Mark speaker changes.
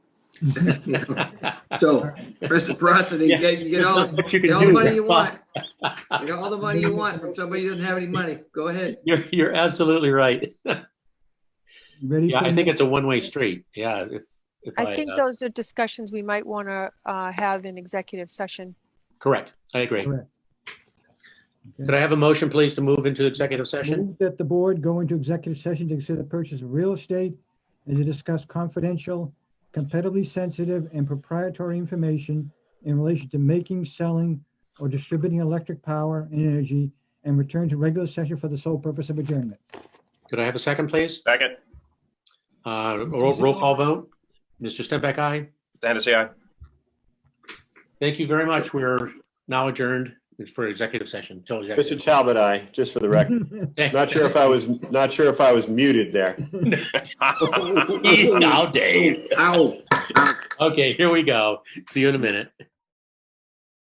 Speaker 1: So reciprocity, you get, you get all,
Speaker 2: There's not much you
Speaker 1: get
Speaker 2: can
Speaker 1: all the
Speaker 2: do.
Speaker 1: money you want. You get all the money you want from somebody who doesn't have any money. Go ahead.
Speaker 2: You're, you're absolutely right.
Speaker 3: You Ready?
Speaker 2: Yeah,
Speaker 3: for
Speaker 2: I
Speaker 3: the
Speaker 2: think it's
Speaker 3: next-
Speaker 2: a one-way street. Yeah, if, if I,
Speaker 4: I think
Speaker 2: uh,
Speaker 4: those are discussions we might want to have in executive session.
Speaker 2: correct, I agree.
Speaker 3: Correct. Okay.
Speaker 2: Could I have a motion, please, to move into executive session?
Speaker 3: Move That the board go into executive session to consider the purchase of real estate and to discuss confidential, competitively sensitive and proprietary information in relation to making, selling or distributing electric power and energy and return to regular session for the sole purpose of adjournment.
Speaker 2: Could I have a second, please?
Speaker 5: Second,
Speaker 2: Uh, Roll roll call vote. Mr. Stempak, aye.
Speaker 5: Hennessy, aye.
Speaker 2: Thank you very much. We're now adjourned for executive session. till
Speaker 6: Mr.
Speaker 2: executive.
Speaker 6: Talbot, I, just for the record. Not sure if I was, not sure if I was muted there.
Speaker 2: Now, Dave.
Speaker 1: Ow.
Speaker 2: Okay, here we go. See you in a minute.